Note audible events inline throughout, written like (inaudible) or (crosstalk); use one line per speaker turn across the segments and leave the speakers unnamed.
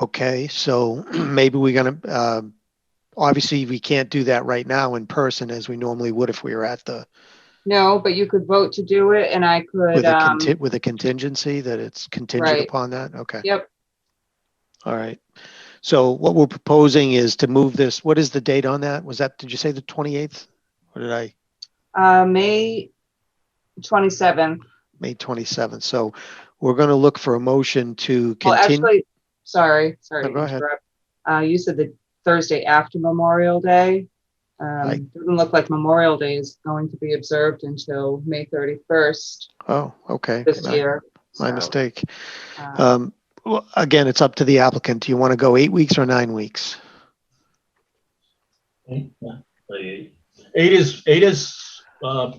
Okay, so (clears throat) maybe we're gonna, um, obviously, we can't do that right now in person as we normally would if we were at the,
No, but you could vote to do it and I could,
with a
um,
conti- with a contingency that it's contingent
Right.
upon that? Okay.
Yep.
All right. So what we're proposing is to move this, what is the date on that? Was that, did you say the 28th? Or did I,
uh, May twenty-seventh.
May 27th? So we're gonna look for a motion to
Well,
continue.
actually, sorry, sorry
No,
to
go ahead.
interrupt. Uh, you said the Thursday after Memorial Day. Um,
Right.
doesn't look like Memorial Day is going to be observed until May thirty-first
Oh, okay.
this
My-
year.
My
So,
mistake.
uh,
Um, well, again, it's up to the applicant. Do you want to go eight weeks or nine weeks?
Eight is, eight is, uh,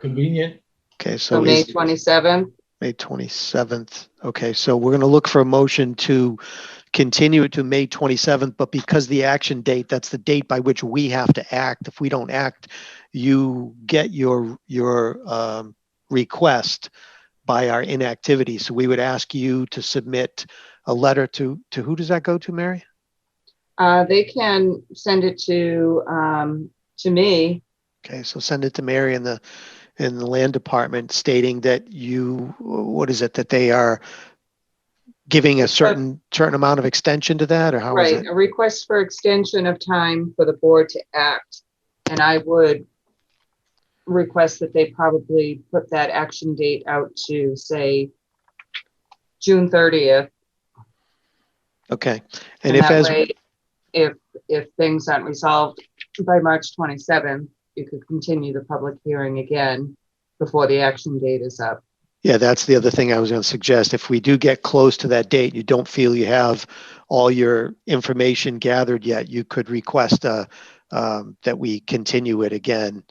convenient.
Okay,
So
so
May
is
twenty-seventh,
May 27th. Okay, so we're going to look for a motion to continue it to May 27th, but because the action date, that's the date by which we have to act. If we don't act, you get your, your um, request by our inactivity. So we would ask you to submit a letter to, to who does that go to, Mary?
uh, they can send it to, um, to me.
Okay, so send it to Mary in the, in the land department stating that you, what is it, that they are giving a certain, certain amount of extension to that, or how is
Right,
it?
a request for extension of time for the board to act. And I would request that they probably put that action date out to, say, June thirtieth.
Okay, and if as,
If, if things aren't resolved by March twenty-seventh, you could continue the public hearing again before the action date is up.
yeah, that's the other thing I was gonna suggest, if we do get close to that date, you don't feel you have all your information gathered yet, you could request, uh, um, that we continue it again.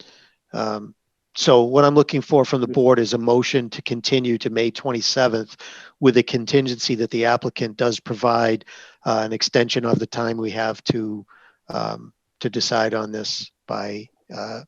Um, so what I'm looking for from the board is a motion to continue to May twenty-seventh with a contingency that the applicant does provide, uh, an extension of the time we have to, um, to decide on this by, uh,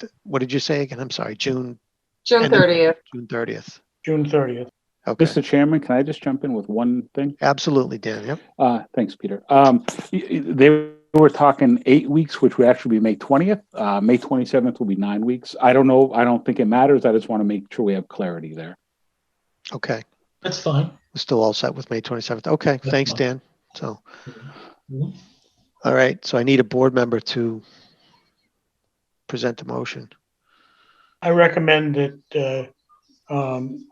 th- what did you say again? I'm sorry, June?
June
And then-
thirtieth,
June thirtieth.
June thirtieth.
Okay,
Mr. Chairman, can I just jump in with one thing?
absolutely, Dan, yep.
Uh, thanks, Peter. Um, y- y- they were talking eight weeks, which would actually be May twentieth. Uh, May twenty-seventh will be nine weeks. I don't know. I don't think it matters. I just want to make sure we have clarity there.
Okay,
That's fine.
we're still all set with May twenty-seventh. Okay,
That's
thanks,
fine.
Dan. So,
Mhm.
all right, so I need a board member to present the motion.
I recommend that, uh, um,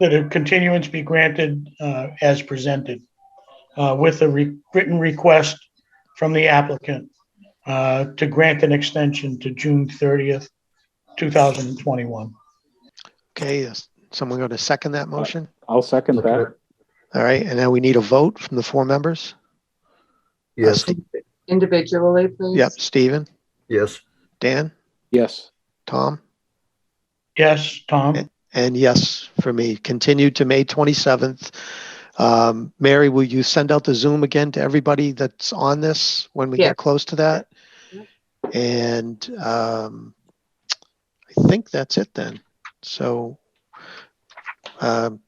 that a continuance be granted, uh, as presented, uh, with a re- written request from the applicant, uh, to grant an extension to June thirtieth, two thousand and twenty-one.
Okay, is someone going to second that motion?
I'll second that.
All right, and now we need a vote from the four members. Uh,
Yes,
Ste-
individually, please.
Yep, Stephen,
yes,
Dan,
Yes.
Tom,
Yes, Tom?
and yes, for me, continue to May twenty-seventh. Um, Mary, will you send out the Zoom again to everybody that's on this when we
Yeah.
get close to that? And um, I think that's it then. So um,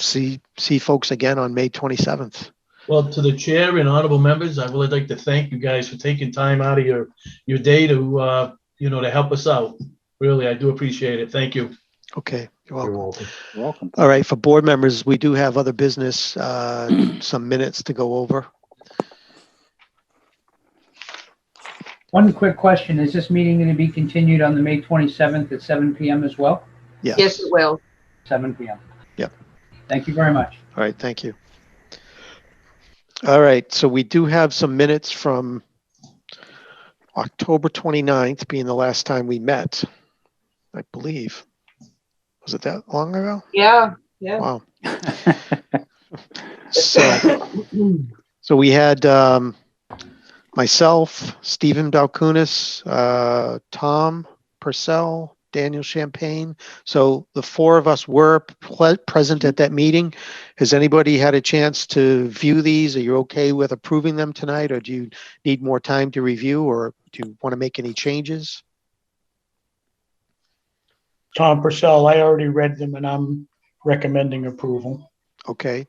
see, see folks again on May 27th.
Well, to the chair and honorable members, I would like to thank you guys for taking time out of your, your day to, uh, you know, to help us out. Really, I do appreciate it. Thank you.
Okay, you're
you're
welcome.
welcome.
You're Welcome.
All right, for board members, we do have other business, uh, (clears throat) some minutes to go over.
One quick question, is this meeting going to be continued on the May 27th at 7 PM as well?
Yes.
Yes, it will.
7 PM.
Yep.
Thank you very much.
All right, thank you. All right, so we do have some minutes from October 29th being the last time we met, I believe. Was it that long ago?
Yeah, yeah.
Wow. So, so we had um, myself, Stephen Balkunas, uh, Tom Purcell, Daniel Champagne. So the four of us were ple- present at that meeting. Has anybody had a chance to view these? Are you okay with approving them tonight, or do you need more time to review, or do you want to make any changes?
Tom Purcell, I already read them and I'm recommending approval.
Okay,